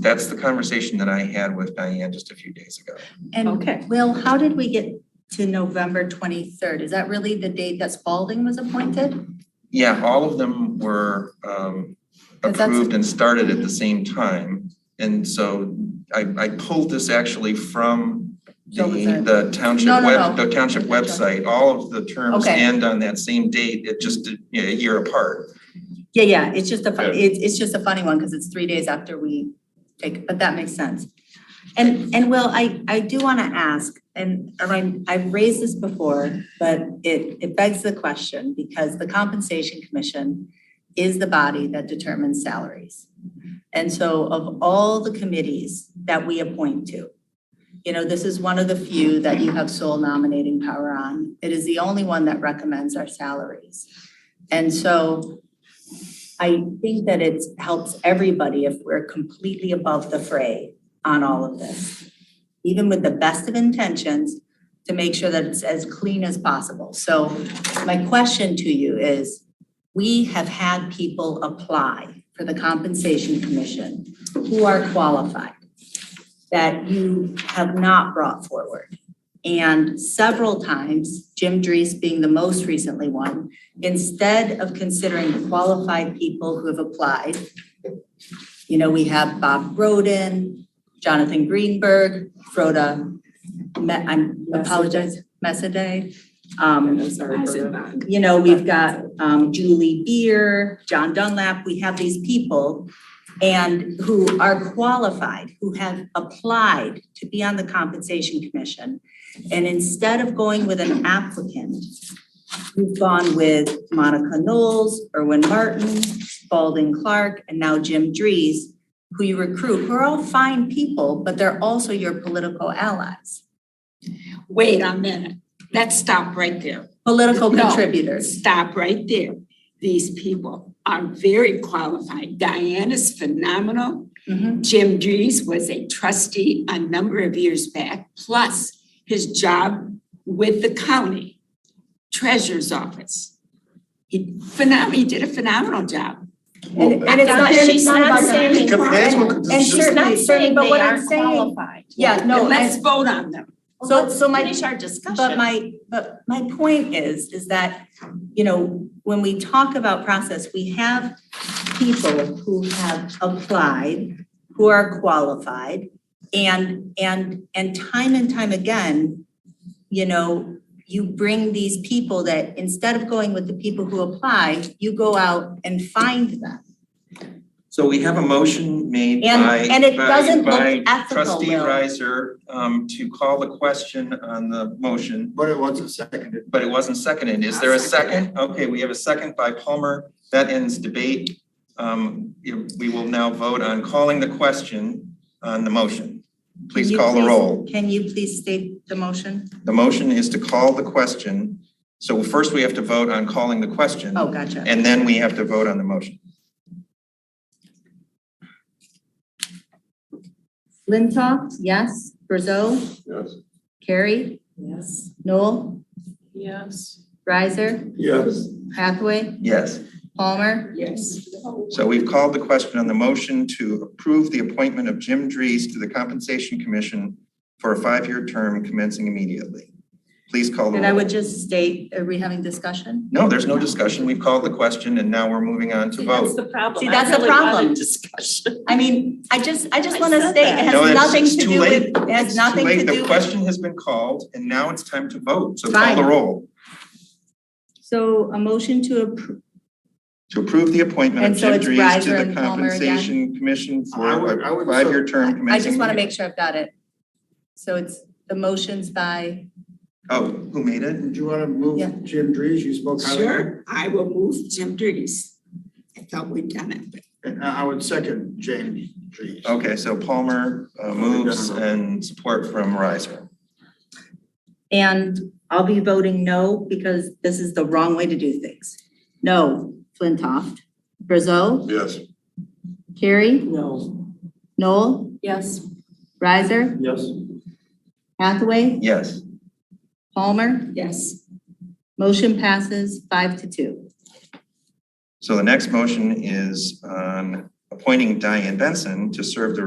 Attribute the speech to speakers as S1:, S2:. S1: That's the conversation that I had with Diane just a few days ago.
S2: Okay.
S3: And Will, how did we get to November twenty-third? Is that really the date that Spalding was appointed?
S1: Yeah, all of them were um
S3: But that's-
S1: approved and started at the same time. And so I I pulled this actually from the
S3: What was that?
S1: the township
S3: No, no,
S1: web,
S3: no.
S1: the township website. All of the terms
S3: Okay.
S1: end on that same date, it just, did, you know, a year apart.
S3: Yeah, yeah, it's just a, fun-
S4: Yeah.
S3: it's, it's just a funny one because it's three days after we take, but that makes sense. And, and Will, I, I do want to ask, and I- I've raised this before, but it, it begs the question because the Compensation Commission is the body that determines salaries. And so of all the committees that we appoint to, you know, this is one of the few that you have sole nominating power on. It is the only one that recommends our salaries. And so I think that it helps everybody if we're completely above the fray on all of this, even with the best of intentions, to make sure that it's as clean as possible. So my question to you is, we have had people apply for the Compensation Commission who are qualified that you have not brought forward. And several times, Jim Dries being the most recently one, instead of considering qualified people who have applied, you know, we have Bob Roden, Jonathan Greenberg, Froda, Me- I'm apologize, Messaday. Um, you know, we've got um Julie Beer, John Dunlap, we have these people and who are qualified, who have applied to be on the compensation commission. And instead of going with an applicant, you've gone with Monica Knowles, Erwin Martin, Spalding Clark, and now Jim Dries, who you recruit, who are all fine people, but they're also your political allies,
S5: Wait a minute, let's stop right there,
S3: political
S5: No.
S3: contributors.
S5: stop right there. These people are very qualified. Diane is phenomenal.
S3: Mhm.
S5: Jim Dries was a trustee a number of years back, plus his job with the county treasurer's office. He phenom, he did a phenomenal job.
S4: Well,
S6: And it's not, she's not about
S4: it
S6: saying.
S4: could- that's what-
S3: And
S4: it's just-
S3: certainly-
S6: Not saying
S3: but
S6: they
S3: what I'm
S6: aren't
S3: saying-
S6: qualified.
S3: Yeah, no, and-
S5: And Let's vote on them.
S3: So-
S6: Well, let's
S3: so my-
S6: Finish our discussion.
S3: But my, but my point is, is that, you know, when we talk about process, we have people who have applied, who are qualified, and, and, and time and time again, you know, you bring these people that, instead of going with the people who apply, you go out and find them.
S1: So we have a motion made
S3: And-
S1: by
S3: and it
S1: by-
S3: doesn't look
S1: by
S3: ethical,
S1: trustee
S3: Will.
S1: Riser um to call the question on the motion.
S4: But it wasn't seconded.
S1: but it wasn't seconded. Is there a second? Okay, we have a second by Palmer. That ends debate. Um, you- we will now vote on calling the question on the motion. Please
S3: Can you
S1: call the roll.
S3: Can you please state the motion?
S1: The motion is to call the question. So first we have to vote on calling the question.
S3: Oh, gotcha.
S1: And then we have to vote on the motion.
S3: Flintoff, yes. Brzezo,
S4: Yes.
S3: Carrie,
S6: Yes.
S3: Noel,
S6: Yes.
S3: Riser,
S4: Yes.
S3: Hathaway,
S1: Yes.
S3: Palmer,
S5: Yes.
S1: So we've called the question on the motion to approve the appointment of Jim Dries to the Compensation Commission for a five-year term commencing immediately. Please call the roll.
S3: And I would just state, are we having discussion?
S1: No, there's no discussion. We've called the question and now we're moving on to
S6: See, that's
S1: vote.
S6: the problem.
S3: See,
S6: I
S3: that's the
S6: really wanted
S3: problem.
S6: Discussion.
S3: I mean, I just, I just
S6: I
S3: want to
S6: said
S3: state, it
S6: that.
S1: No,
S3: has
S1: it's-
S3: nothing
S1: it's
S3: to
S1: too
S3: do
S1: late.
S3: with, it
S1: It's
S3: has
S1: too
S3: nothing
S1: late.
S3: to do
S1: The
S3: with.
S1: question has been called and now it's time to vote. So call the
S3: Fine.
S1: roll.
S3: So a motion to approve,
S1: To approve the appointment of
S3: And so
S1: Jim
S3: it's
S1: Dries
S3: Reiser
S1: to the
S3: and Palmer again?
S1: Compensation Commission
S4: I would-
S1: for
S4: I
S1: a
S4: would-
S1: five-year term commencing.
S3: I just want to make sure I've got it. So it's the motions by,
S1: Oh, who made it?
S4: Do you want to
S3: Yeah.
S4: move Jim Dries? You spoke highly. of him.
S5: Sure, I will move Jim Dries. I thought we'd done it, but
S4: And I I would second James Dries.
S1: Okay, so Palmer uh, moves and support from Riser.
S3: and I'll be voting no because this is the wrong way to do things. No, Flintoff, Brzezo,
S4: Yes.
S3: Carrie,
S5: no.
S3: Noel,
S6: Yes.
S3: Riser,
S4: Yes.
S3: Hathaway,
S1: Yes.
S3: Palmer.
S5: Yes.
S3: Motion passes five to two.
S1: So the next motion is on appointing Diane Benson to serve the